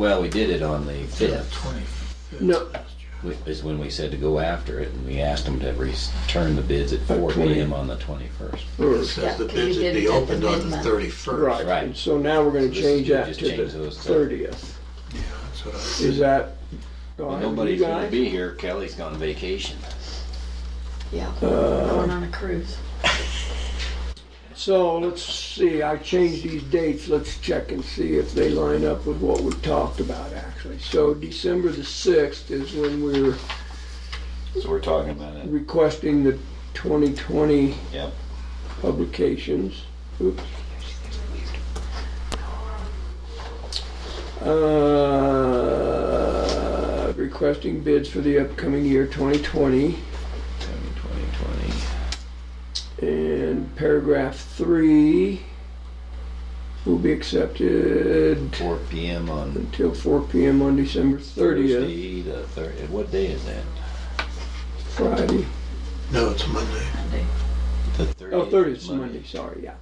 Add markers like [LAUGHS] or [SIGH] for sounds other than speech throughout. Well, we did it on the fifth, Twenty-fifth. No. is when we said to go after it, and we asked them to return the bids at four PM on the twenty-first. or- It says the Yeah, bids you would did it be at the opened on the midnight. Right, thirty-first. Right. and so now we're So gonna this- change you that just to change the those stuff. thirtieth. Yeah, that's what I Is said. that? all right with you Nobody's gonna guys? be here, Kelly's gone vacation. Yeah, going on a cruise. So let's see, I changed these dates, let's check and see if they line up with what we talked about actually. So December the sixth is when we're So we're talking about it. requesting the twenty twenty Yep. publications. Oops. Uh, requesting bids for the upcoming year twenty twenty. Twenty twenty. And paragraph three will be accepted Four PM on until four PM on December thirtieth, Thursday, the thirtieth, what day is that? Friday. No, it's Monday. Monday. The thirtieth. Oh, thirtieth is Monday, sorry, yeah.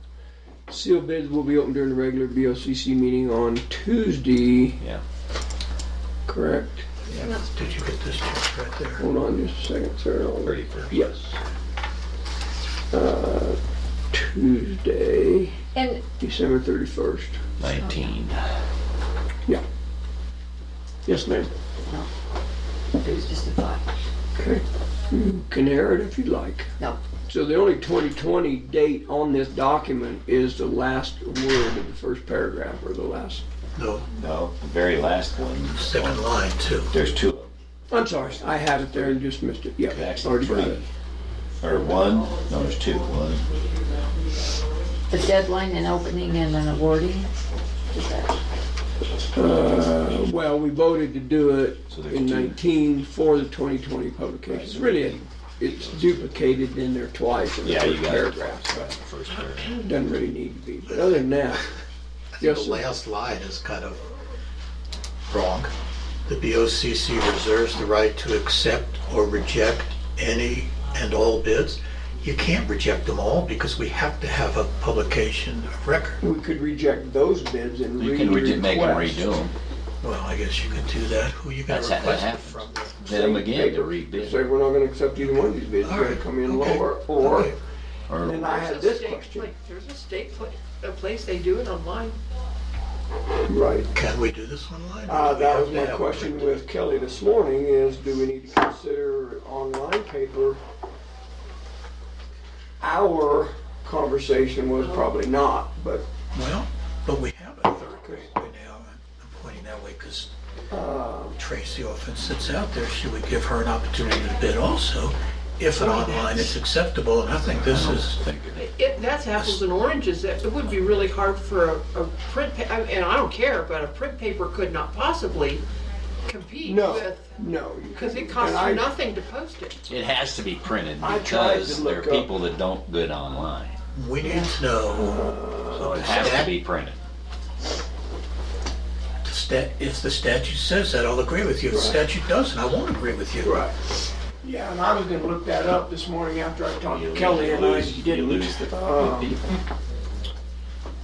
Sealed bids will be open during the regular BOCC meeting on Tuesday. Yeah. Correct? Did you get this check right there? Hold on just a second, sir. I'll- Thirty-first. Yes. Uh, Tuesday, And December thirty-first. Nineteen. Yes, ma'am. it was just a thought. Okay. You can air it if you'd like. No. So the only 2020 date on this document is the last word of the first paragraph or the last, No, No, the very last one. second line too. There's two of them. I'm sorry, I had it there and just missed it. Yeah, Actually, already got three. it. Or one, no, there's two, one. The deadline and opening and then awarding, is that, Uh, Well, we voted to do it So there's in two. 19 for the 2020 publication. It's really, it's duplicated in there twice in the Yeah, you first got it. paragraph. Right, the first paragraph. Doesn't really need to be, but other [LAUGHS] than that, The yes, sir. last line is kind of wrong. The BOCC reserves the right to accept or reject any and all bids. You can't reject them all because we have to have a publication of record. we could reject those bids and You can re- make them re-request. redo them, Well, I guess you could do that. Who you gonna That's how that request it happens. from? bid them again to Say, rebid. we're not gonna accept either one of these bids, you're gonna come in Okay. lower, or, Okay. Or and I had There's a this state question, pla- There's a state pla- a place, they do it online. right? Can we do this online? or Uh, do we that have was to my have it question printed? with Kelly this morning, is do we need to consider online paper? Our conversation was probably not, but, Well, but we have a third grade by now. I'm pointing that way because uh, Tracy often sits out there. Should we give her an opportunity to bid also? If an online is acceptable, and I think this is, It, that's apples and oranges. It it would be really hard for a, a print, pa- I- and I don't care, but a print paper could not possibly compete no, with, no. you because it couldn't. costs And I- you nothing to post it. It has to be printed I tried to because there are look up- people that don't bid online. we need to know, So it has to be printed. the stat- if the statute says that, I'll agree with you. If the statute doesn't, I won't agree with you. Right. Yeah, and I was gonna look that up this morning after I talked You to lose- Kelly, you and I lose- You didn't. lose the the Um, people.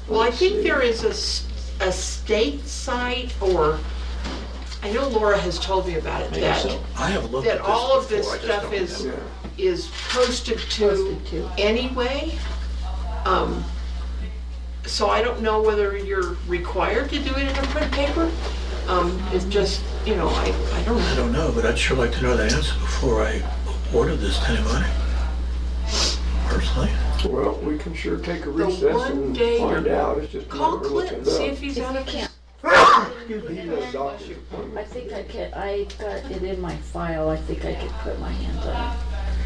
Well, I Let's see. think there is a, s- a state site or, I know Laura has told me about it, Maybe that, so. I have looked at that this all of this before, I just stuff don't is, remember. is posted to Posted to. anyway. Um, So I don't know whether you're required to do it in a print paper. Um, It's just, you know, I, I don't I know. don't know, but I'd sure like to know the answer before I order this to anybody, personally. Well, we can sure take a recess one and day- find out, it's just. Call never Clint, looking see up. if he's If out you of can't. Excuse me, he's got a doctor's appointment. I think I can, I got it in my file, I think I could put my hands on it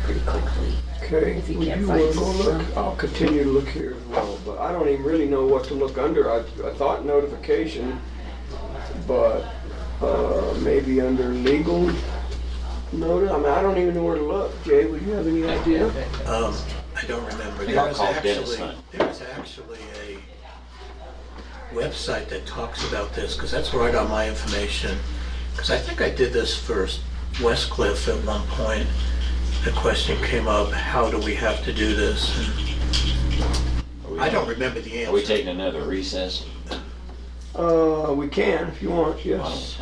pretty quickly. Okay, If you well, can't you find will go look, something. I'll continue to look here as well, but I don't even really know what to look under. I, I thought notification, but, uh, maybe under legal notice, I mean, I don't even know where to look. Jay, would you have any idea? Um, I don't remember. think There I'll is call Dennis actually, Hunt. there is actually a website that talks about this, because that's where I got my information. Because I think I did this for Westcliff at one point. The question came up, how do we have to do this? And Are we- I don't remember the Are we answer. taking another recess? Uh, we can, if you want, yes.